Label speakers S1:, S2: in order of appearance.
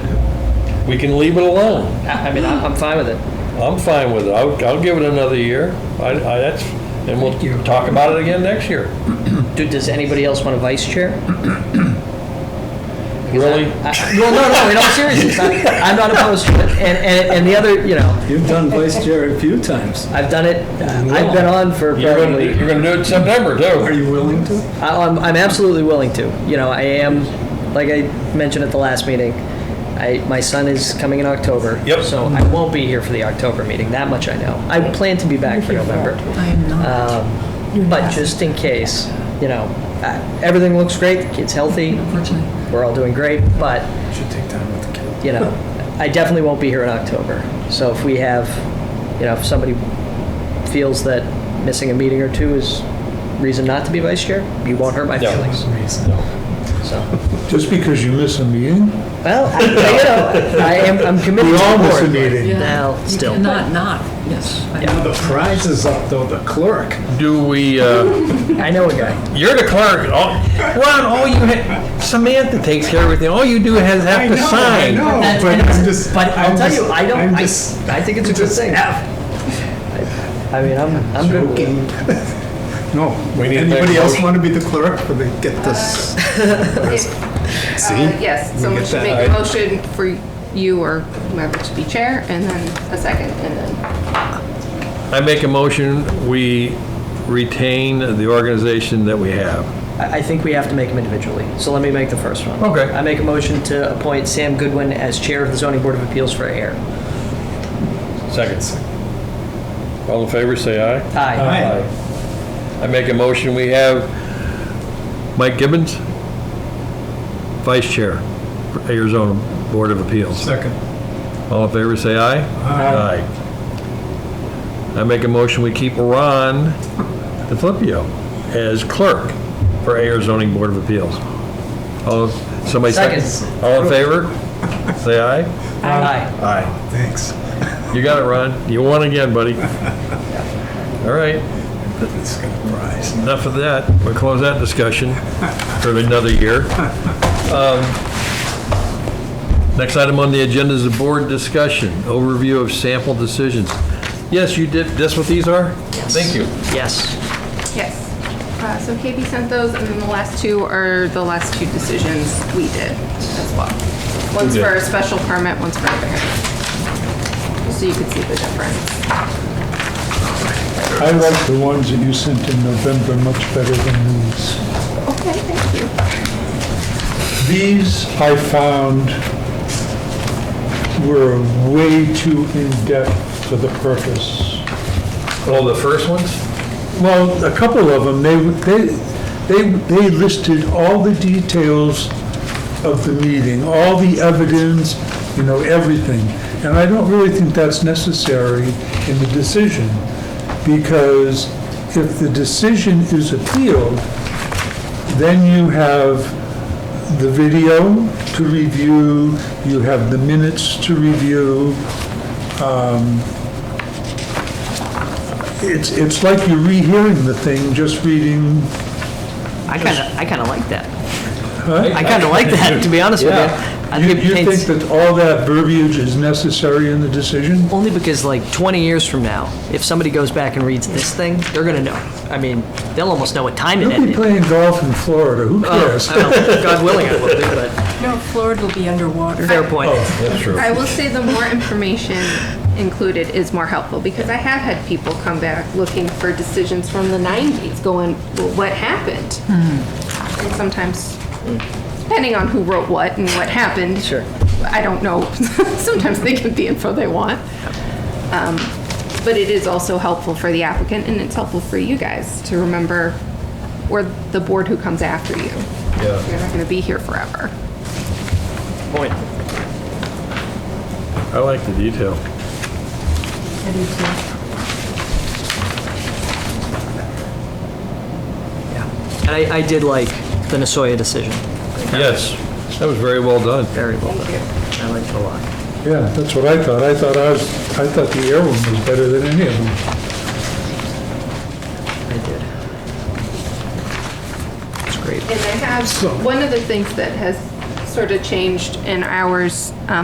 S1: we can leave it alone.
S2: I I mean, I'm I'm fine with it.
S1: I'm fine with it. I'll, I'll give it another year. I, I, that's, and we'll talk about it again next year.
S2: Do- Does anybody else want a vice chair?
S1: Really?
S2: I- Well, no, no, in all seriousness, I- I'm not opposed to it. And, and and the other, you know,
S3: You've done vice chair a few times.
S2: I've done it, I've been on for
S1: You're gonna,
S2: probably,
S1: you're gonna do it in September
S3: Are
S1: too.
S3: you willing to?
S2: I- I'm, I'm absolutely willing to. You know, I am, like I mentioned at the last meeting, I, my son is coming in October.
S1: Yep.
S2: So I won't be here for the October meeting, that much I know. I plan to be back for November.
S4: I'm not.
S2: Um, But just in case, you know, uh, everything looks great, the kid's healthy,
S4: Unfortunately.
S2: we're all doing great, but,
S3: Should take time with the kid.
S2: you know, I definitely won't be here in October. So if we have, you know, if somebody feels that missing a meeting or two is reason not to be vice chair, you won't hurt my
S1: No.
S2: feelings, so.
S5: Just because you miss a meeting?
S2: Well, I- you know, I am, I'm committed to
S5: We
S2: the
S5: all miss a
S2: board.
S5: meeting.
S4: Yeah.
S2: Now,
S4: You
S2: still.
S4: cannot not, yes. I know.
S3: The prize is up though, the clerk.
S1: Do we, uh,
S2: I know a guy.
S1: you're the clerk. Oh. All- Ron, all you, ha- Samantha takes care of everything. All you do is have to sign.
S3: I know,
S2: That's-
S3: but
S2: and-
S3: I'm just.
S2: Oh, But I'll
S3: I'm
S2: tell
S3: just-
S2: you, I don't,
S3: I'm
S2: I,
S3: just-
S2: I think it's a good thing. I mean, I'm, I'm good with it.
S3: No,
S1: We need to make a
S3: anybody else
S1: motion.
S3: want to be the clerk for the, get this?
S6: Uh,
S3: See?
S6: Yes,
S3: We
S6: someone
S3: get
S6: should
S3: that.
S6: make a motion for you or whoever to be chair, and then a second, and then,
S1: I make a motion, we retain the organization that we have.
S2: I I think we have to make them individually, so let me make the first one.
S1: Okay.
S2: I make a motion to appoint Sam Goodwin as Chair of the Zoning Board of Appeals for AIR.
S1: Seconds. All in favor, say aye.
S2: Aye.
S3: Hi.
S1: I make a motion, we have Mike Gibbons, Vice Chair, for Arizona Board of Appeals.
S3: Second.
S1: All in favor, say aye.
S3: Aye.
S1: Aye. I make a motion, we keep Ron DeFlippio as clerk for Arizona Zoning Board of Appeals. All, somebody seconds?
S2: Seconds.
S1: All in favor? Say aye.
S2: Aye.
S1: Aye.
S3: Thanks.
S1: You got it, Ron. You won again, buddy. All right,
S3: It's got a prize.
S1: enough of that. We'll close that discussion for another year. Um, Next item on the agenda is the board discussion, overview of sample decisions. Yes, you did, that's what these are? Thank you.
S2: Yes.
S6: yes. Uh, So KB sent those, and then the last two are the last two decisions we did as well. One's
S1: did?
S6: for a special permit, one's for a variance. So you could see the difference.
S5: I like the ones that you sent in November much better than these.
S6: Okay, thank you.
S5: These, I found, were way too in-depth for the purpose.
S1: Oh, the first ones?
S5: Well, a couple of them, they, they, they they listed all the details of the meeting, all the evidence, you know, everything. And I don't really think that's necessary in the decision, because if the decision is appealed, then you have the video to review, you have the minutes to review. It's, it's like you're rehearing the thing, just reading
S2: I kind of, I kind of like that. I kind of like that, to be honest with you. I
S5: You,
S2: think it
S5: you think
S2: paints-
S5: that all that verbiage is necessary in the decision?
S2: Only because like 20 years from now, if somebody goes back and reads this thing, they're going to know. I mean, they'll almost know what time it
S5: You'll be
S2: ended.
S5: playing golf in Florida, who cares?
S2: Oh, I don't- God willing, I will do, but
S4: No, Florida will be underwater.
S2: fair point.
S5: Oh.
S1: That's true.
S6: I will say the more information included is more helpful because I have had people come back looking for decisions from the 90s going, well, what happened?
S1: Hmm.
S6: And sometimes, depending on who wrote what and what happened.
S2: Sure.
S6: I don't know. Sometimes they get the info they want. Um, But it is also helpful for the applicant and it's helpful for you guys to remember, or the board who comes after you.
S1: Yeah.
S6: You're not going to be here forever.
S2: Point.
S1: I like the detail.
S4: I do too.
S2: And I, I did like the Nasoya decision.
S1: Yes, that was very well done.
S2: Very well done. I liked it a lot.
S5: Yeah, that's what I thought, I thought I was, I thought the air one was better than any of them.
S2: I did. It's great.
S6: And I have, one of the things that has sort of changed in ours, um,